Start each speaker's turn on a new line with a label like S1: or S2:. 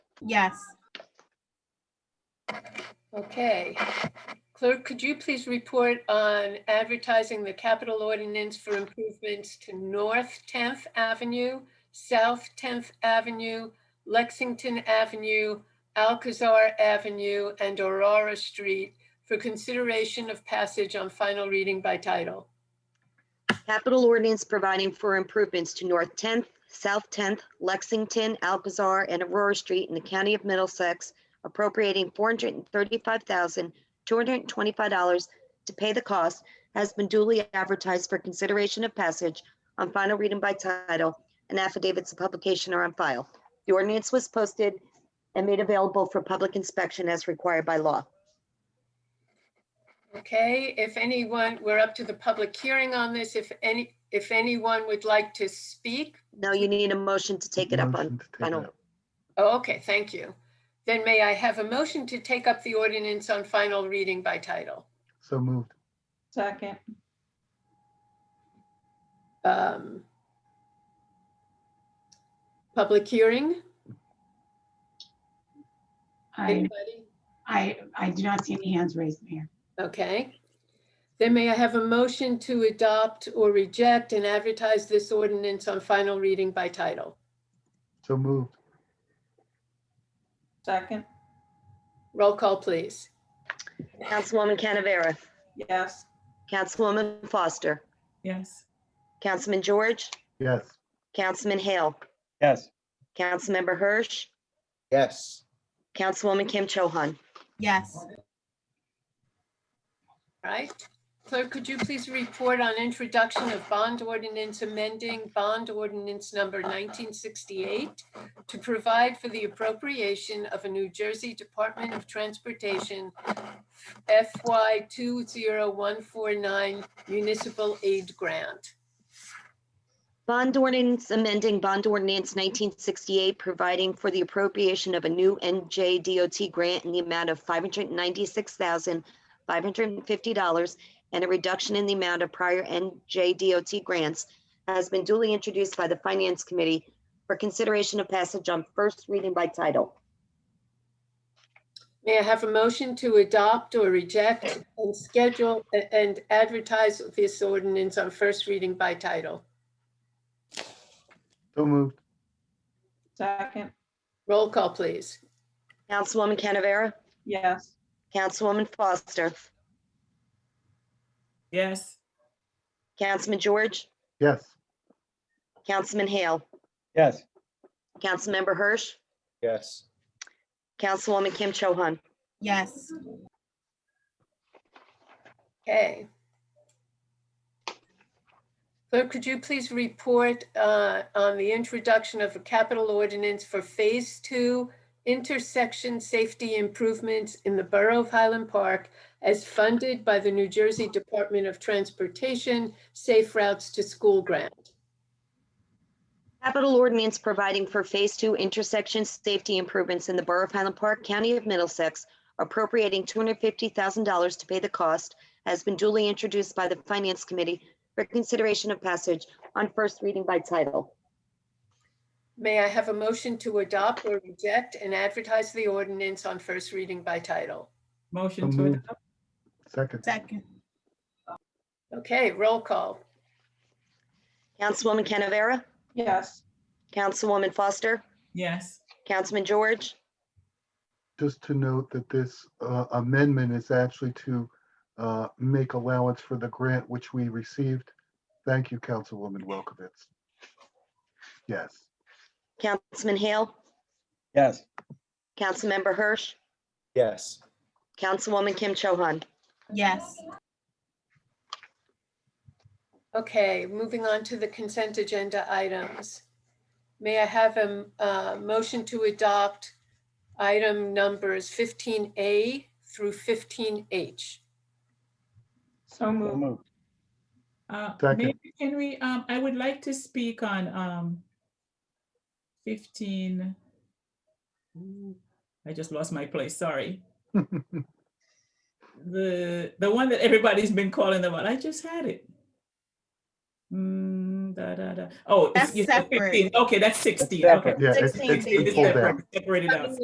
S1: Yes.
S2: Okay. Clerk, could you please report on advertising the capital ordinance for improvements to North 10th Avenue, South 10th Avenue, Lexington Avenue, Alcazar Avenue, and Aurora Street for consideration of passage on final reading by title?
S3: Capital ordinance providing for improvements to North 10th, South 10th, Lexington, Alcazar, and Aurora Street in the County of Middlesex, appropriating $435,225 to pay the cost, has been duly advertised for consideration of passage on final reading by title, and affidavits of publication are on file. The ordinance was posted and made available for public inspection as required by law.
S2: Okay, if anyone, we're up to the public hearing on this. If any, if anyone would like to speak,
S3: Now you need a motion to take it up
S4: Motion
S3: on
S4: to take it
S3: final.
S4: up.
S2: Oh, okay, thank you. Then may I have a motion to take up the ordinance on final reading by title?
S4: So moved.
S5: Second,
S2: Um, Public hearing?
S6: I,
S2: Anybody?
S6: I, I do not see any hands raised, Mayor.
S2: Okay. Then may I have a motion to adopt or reject and advertise this ordinance on final reading by title?
S4: So moved.
S5: second,
S2: Roll call, please.
S3: Councilwoman Canavera?
S5: yes.
S3: Councilwoman Foster?
S7: yes,
S3: Councilman George,
S4: Yes.
S3: Councilman Hale,
S8: yes,
S3: Councilmember Hirsch,
S9: yes,
S3: Councilwoman Kim Cho Han.
S1: Yes.
S2: All Right? Clerk, could you please report on introduction of bond ordinance amending bond ordinance number 1968 to provide for the appropriation of a New Jersey Department of Transportation FY 20149 municipal aid grant?
S3: Bond ordinance amending bond ordinance 1968, providing for the appropriation of a new NJDOT grant in the amount of $596,550 and a reduction in the amount of prior NJDOT grants has been duly introduced by the Finance Committee for consideration of passage on first reading by title.
S2: May I have a motion to adopt or reject and schedule a- and advertise this ordinance on first reading by title?
S4: So moved.
S5: Second,
S2: Roll call, please.
S3: Councilwoman Canavera?
S5: yes.
S3: Councilwoman Foster?
S7: yes,
S3: Councilman George,
S4: Yes.
S3: Councilman Hale,
S8: yes,
S3: Councilmember Hirsch,
S9: yes,
S3: Councilwoman Kim Cho Han.
S1: Yes.
S2: Okay. Clerk, could you please report uh, on the introduction of a capital ordinance for Phase Two intersection safety improvements in the Borough of Highland Park as funded by the New Jersey Department of Transportation Safe Routes to School Grant?
S3: Capital ordinance providing for Phase Two intersection safety improvements in the Borough of Highland Park, County of Middlesex, appropriating $250,000 to pay the cost, has been duly introduced by the Finance Committee for consideration of passage on first reading by title.
S2: May I have a motion to adopt or reject and advertise the ordinance on first reading by title?
S7: motion
S4: So
S7: to
S4: moved.
S7: adopt,
S4: Second.
S1: Second.
S2: Okay, roll call.
S3: Councilwoman Canavera?
S5: Yes,
S3: Councilwoman Foster?
S7: yes,
S3: Councilman George?
S4: Just to note that this uh, amendment is actually to uh, make allowance for the grant which we received. Thank you, Councilwoman Welkowitz. Yes.
S3: Councilman Hale?
S8: yes,
S3: Councilmember Hirsch?
S9: yes,
S3: Councilwoman Kim Cho Han.
S1: Yes.
S2: Okay, moving on to the consent agenda items. May I have a uh, motion to adopt item numbers 15A through 15H?
S5: so
S8: so
S5: moved.
S8: moved,
S7: uh,
S4: Second.
S7: maybe can we, um, I would like to speak on, um, fifteen. Ooh, I just lost my place, sorry. The, the one that everybody's been calling about, I just had it. Mm, da, da, da, oh. it's-
S1: That's
S7: you said
S1: separate.
S7: 15. Okay, that's sixteen, okay.
S8: separate.
S4: Yeah, it's-
S1: Sixteen
S4: it's
S7: It's
S4: been
S1: days.
S4: pulled out.
S7: separate- Separated out.